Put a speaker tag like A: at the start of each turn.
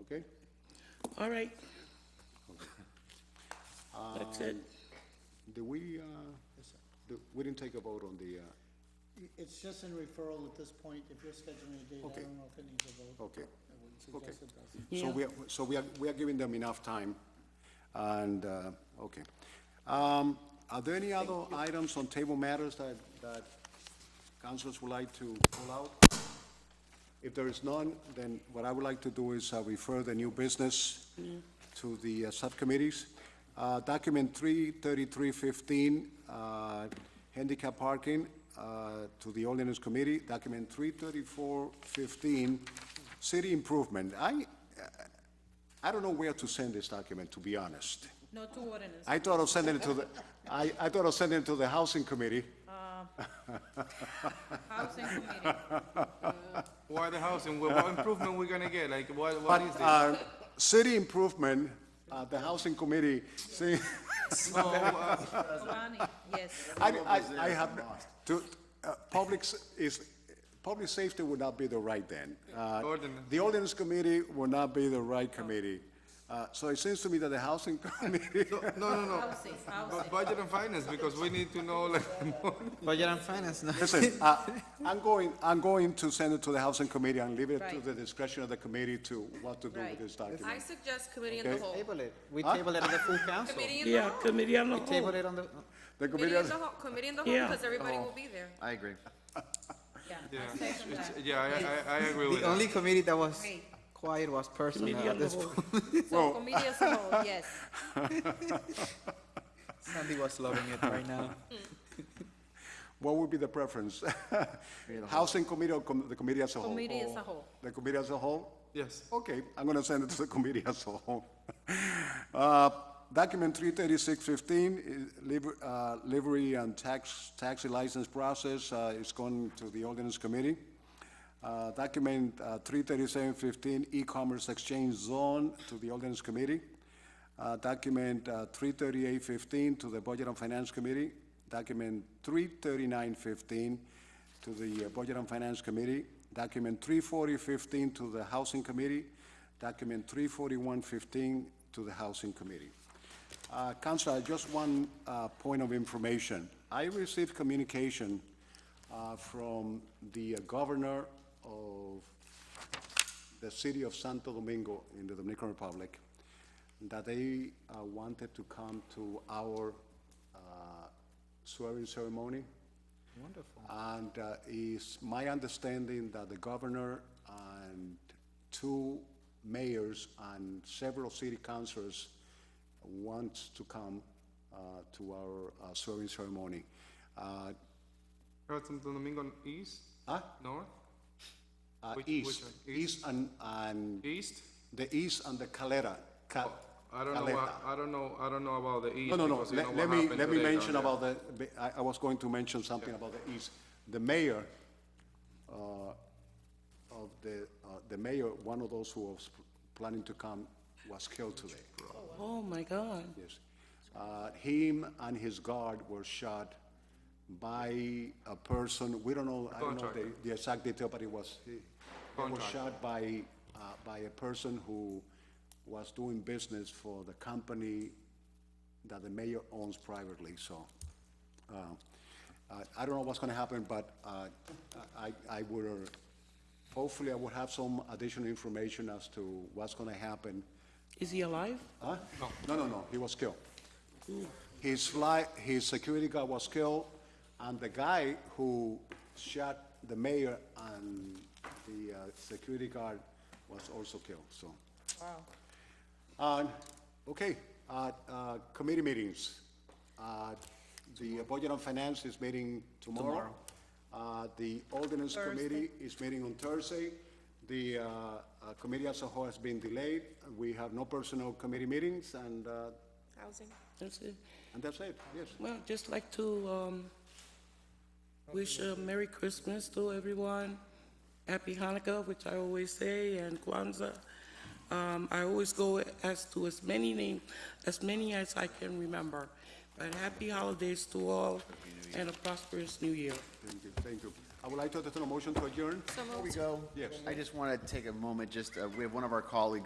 A: okay?
B: All right. That's it.
A: Do we, uh, do- we didn't take a vote on the, uh,
C: It's just in referral at this point, if you're scheduling a date, I
A: Okay.
C: don't know if it needs a vote.
A: okay.
C: I wouldn't
A: Okay.
C: suggest it does.
A: So we, are- so we are, we are giving them enough time, and, uh, okay. Um, Are there any other items on table matters that, that councils would like to pull out? If there is none, then what I would like to do is uh, refer the new business to the uh, subcommittees. Uh, Document 33315, uh, handicap parking, uh, to the ordinance committee. Document 33415, city improvement. I, I don't know where to send this document, to be honest.
D: No, two ordinance.
A: I thought of sending it to the, I, I thought of sending it to the housing committee.
D: Housing committee.
E: Why the housing? What, what improvement we gonna get? Like, what, what
A: But,
E: is this?
A: uh, city improvement, uh, the housing committee, see,
E: No, uh,
D: Kobani, yes.
A: I, I, I have, to, uh, public s- is, public safety would not be the right then. Uh,
E: Ordinance.
A: The ordinance committee would not be the right committee. Uh, so it seems to me that the housing committee,
E: no, no, no.
D: Housing, housing.
E: But budget and finance, because we need to know, like,
F: Budget and finance, no?
A: listen, uh, I'm going, I'm going to send it to the housing committee and leave it to
D: Right.
A: the discretion of the committee to what to do with
D: Right.
A: this document.
G: I suggest committee in the
A: Okay.
G: whole.
F: Table it. We
H: Ah.
F: table it on the full council.
G: Committee in the
B: Yeah,
G: whole.
B: committee on the
F: Table
B: whole.
F: it on the,
G: Committee
A: The committee,
G: in the whole, committee in the whole,
B: Yeah.
G: because everybody will be there.
H: I agree.
D: Yeah,
E: Oh. yeah,
D: I second
E: it's-
D: that.
E: yeah, I, I, I agree with
F: the
E: that.
F: only committee that was
D: Great.
F: quiet was
B: Committee
F: personnel
B: on
F: at
B: the
F: this
B: whole.
F: point.
D: So committee as a whole, yes.
F: Sandy was loving it right now.
A: what would be the preference? Housing committee or com- the committee as a whole?
D: Committee as
A: Or
D: a whole.
A: The committee as a whole?
E: Yes.
A: Okay, I'm gonna send it to the committee as a whole. Uh, Document three thirty-six fifteen, uh, livery and tax, taxi license process uh, is going to the ordinance committee. Uh, Document three thirty-seven fifteen, e-commerce exchange zone to the ordinance committee. Uh, Document three thirty-eight fifteen to the budget and finance committee. Document three thirty-nine fifteen to the uh, Budget and Finance Committee, document 34015 to the Housing Committee, document 34115 to the Housing Committee. Uh, Counselor, just one uh, point of information. I received communication uh, from the uh, governor of the city of Santo Domingo in the Dominican Republic, that they uh, wanted to come to our uh, swearing ceremony. Wonderful. And uh, it's my understanding that the governor and two mayors and several city councilors wants to come uh, to our uh, swearing ceremony. Uh,
E: Heard Santo Domingo East?
A: Huh?
E: North?
A: uh,
E: Which-
A: East,
E: which-
A: east and, and
E: East?
A: the east and the Calera. Ca-
E: Oh, I don't know,
A: Caleta.
E: what- I don't know, I don't know about the East.
A: No, no, no,
E: because you know
A: let
E: what
A: let me,
E: happened
A: let me
E: today down
A: mention
E: there.
A: about the, I, I was going to mention something about the east. The mayor, uh, of the, uh, the mayor, one of those who was planning to come was killed today,
B: Oh, my God.
A: yes. Uh, him and his guard were shot by a person, we don't know, I don't know the,
E: Contractor.
A: the exact detail, but it was, he he was shot by, uh, by a person who was doing business for the company that the mayor owns privately, so. uh, I- I don't know what's gonna happen, but uh, I, I would, uh, hopefully I will have some additional information as to what's gonna happen.
B: Is he alive?
A: Huh? No, no, no, he was killed. His fly, his security guard was killed, and the guy who shot the mayor and the uh, security guard was also killed, so. Wow. okay, uh, uh, committee meetings. Uh, The Budget and Finance is meeting tomorrow. Uh, The Ordinance Committee is meeting on Thursday. The uh, uh, committee as a whole has been delayed. We have no personnel committee meetings, and, uh,
G: Housing.
B: That's it.
A: and that's it, yes.
B: Well, just like to um, wish a Merry Christmas to everyone, Happy Hanukkah, which I always say, and Kwanzaa. Um, I always go as to as many names, as many as I can remember. But happy holidays to all and a prosperous new year.
A: Thank you, thank you. I would like to entertain a motion to adjourn.
H: I just want to take a moment, just, uh, we have one of our colleagues